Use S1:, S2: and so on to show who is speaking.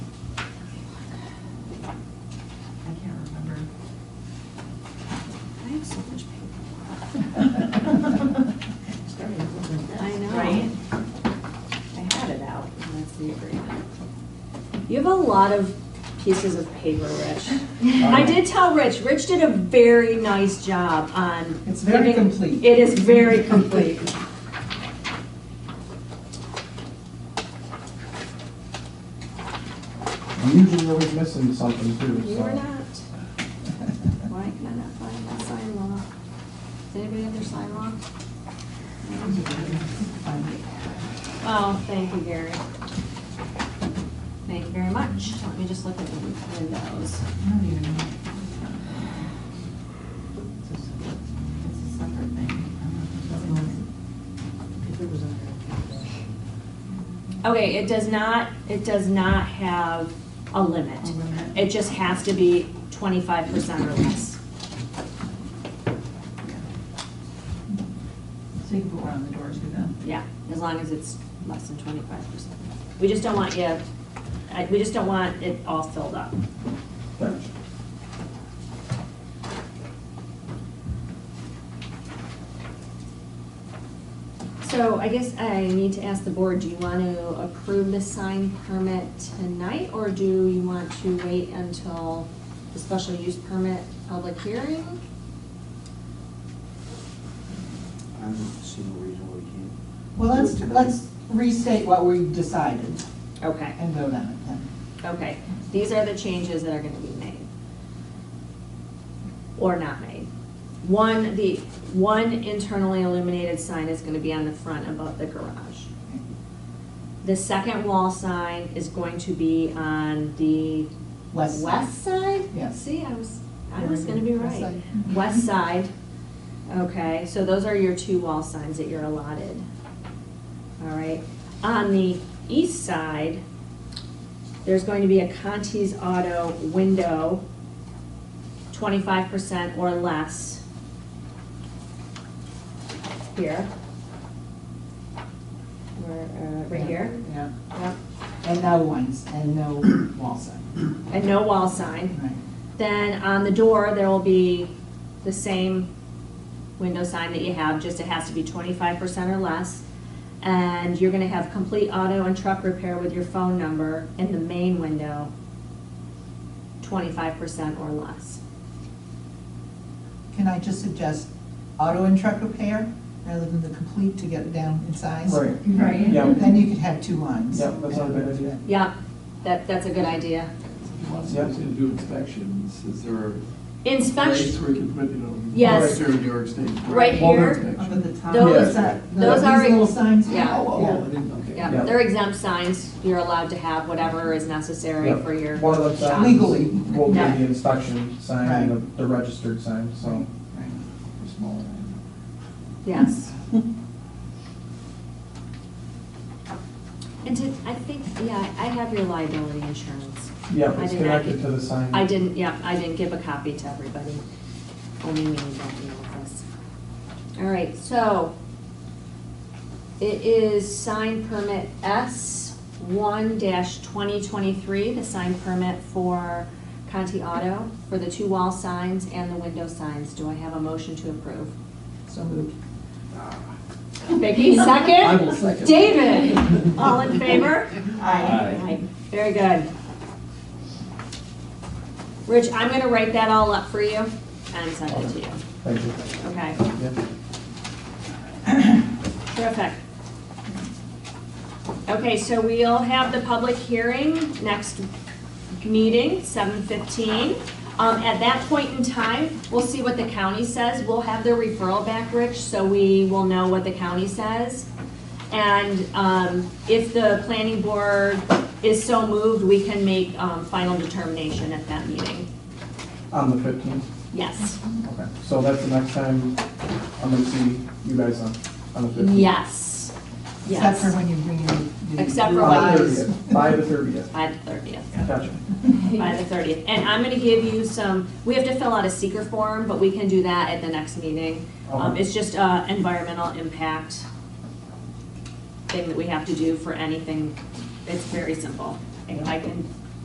S1: have a lot of pieces of paper, Rich. I did tell Rich, Rich did a very nice job on.
S2: It's very
S1: giving-
S2: complete.
S1: It is very complete.
S3: I'm usually always missing something too,
S1: You
S3: so.
S1: are not. Why can I not find that sign law? Does anybody have their sign law? Oh, thank you, Gary. Thank you very much. Let me just look at the windows. Okay, it does not, it does not have a limit.
S4: A limit.
S1: It just has to be twenty-five percent or less.
S4: So you can put one on the doors, do that.
S1: Yeah, as long as it's less than twenty-five percent. We just don't want you, I- we just don't want it all filled up.
S3: Thanks.
S1: So I guess I need to ask the board, do you want to approve the sign permit tonight? Or do you want to wait until the special use permit public hearing?
S5: I don't see no reason why we can't.
S2: Well,
S5: do it
S2: let's,
S5: tonight.
S2: let's restate what we decided
S1: Okay.
S2: and vote on it then.
S1: Okay, these are the changes that are gonna be made. Or not made. One, the, one internally illuminated sign is gonna be on the front above the garage. The second wall sign is going to be on the
S2: West side.
S1: west side?
S2: Yes.
S1: See, I was, I was gonna be right.
S2: West side.
S1: West side, okay, so those are your two wall signs that you're allotted. All right, on the east side, there's going to be a Conti's Auto window, twenty-five percent or less. Here. Where, uh, right here,
S2: Yeah,
S1: yep,
S2: and no ones, and no wall sign,
S1: and no wall sign.
S2: right.
S1: Then on the door, there will be the same window sign that you have, just it has to be twenty-five percent or less. And you're gonna have complete auto and truck repair with your phone number in the main window, twenty-five percent or less.
S2: Can I just suggest auto and truck repair rather than the complete to get it down in size?
S3: Right,
S4: Right.
S3: yeah,
S2: Then you could have two lines.
S3: yeah, that's not a bad idea.
S1: Yeah, that, that's a good idea.
S6: He wants us to do inspections, is there a place
S1: Inspection,
S6: where we can put, you know?
S1: Yes.
S6: Right here in New York State.
S1: Right
S6: Wall
S1: here.
S6: inspection.
S4: Up at the top.
S1: those, uh,
S3: Yeah.
S1: those
S2: These
S1: are.
S2: little signs?
S1: Yeah.
S6: Oh, oh, I didn't, okay.
S1: Yeah, they're exempt signs, you're allowed to have whatever is necessary
S3: Yeah.
S1: for your
S3: One of uh, them
S1: shop.
S3: signs
S2: Legally.
S3: Will be
S1: Yeah.
S3: the inspection sign and the the registered sign, so.
S2: Right.
S3: Smaller.
S1: Yes. And to, I think, yeah, I have your liability insurance.
S3: Yeah,
S1: I
S3: it's
S1: did not-
S3: connected to the sign.
S1: I didn't, yeah, I didn't give a copy to everybody. Only me and Becky know this. All right, so it is sign permit S one twenty twenty-three, the sign permit for Conti Auto for the two wall signs and the window signs. Do I have a motion to approve?
S2: So moved.
S1: Vicky, second?
S6: I will second.
S1: David, all in favor?
S6: Aye.
S1: Very good. Rich, I'm gonna write that all up for you and send it to you,
S3: Thank you.
S1: okay?
S3: Yeah.
S1: Terrific. Okay, so we'll have the public hearing next meeting, seven fifteen. Um, at that point in time, we'll see what the county says. We'll have their referral back, Rich, so we will know what the county says. And, um, if the planning board is so moved, we can make, um, final determination at that meeting.
S3: On the fifteenth,
S1: Yes,
S3: okay. So that's the next time I'm gonna see you guys on, on the fifteenth.
S1: yes,
S2: Except for
S1: yes.
S2: when you bring in. the-
S1: Except for
S3: By
S1: when
S3: the
S1: you-
S3: thirtieth, by the thirtieth,
S1: By the thirtieth.
S3: gotcha.
S1: by the thirtieth. And I'm gonna give you some, we have to fill out a seeker form, but we can do that at the next meeting. Um,
S3: Okay.
S1: it's just, uh, environmental impact thing that we have to do for anything. It's very simple. I I can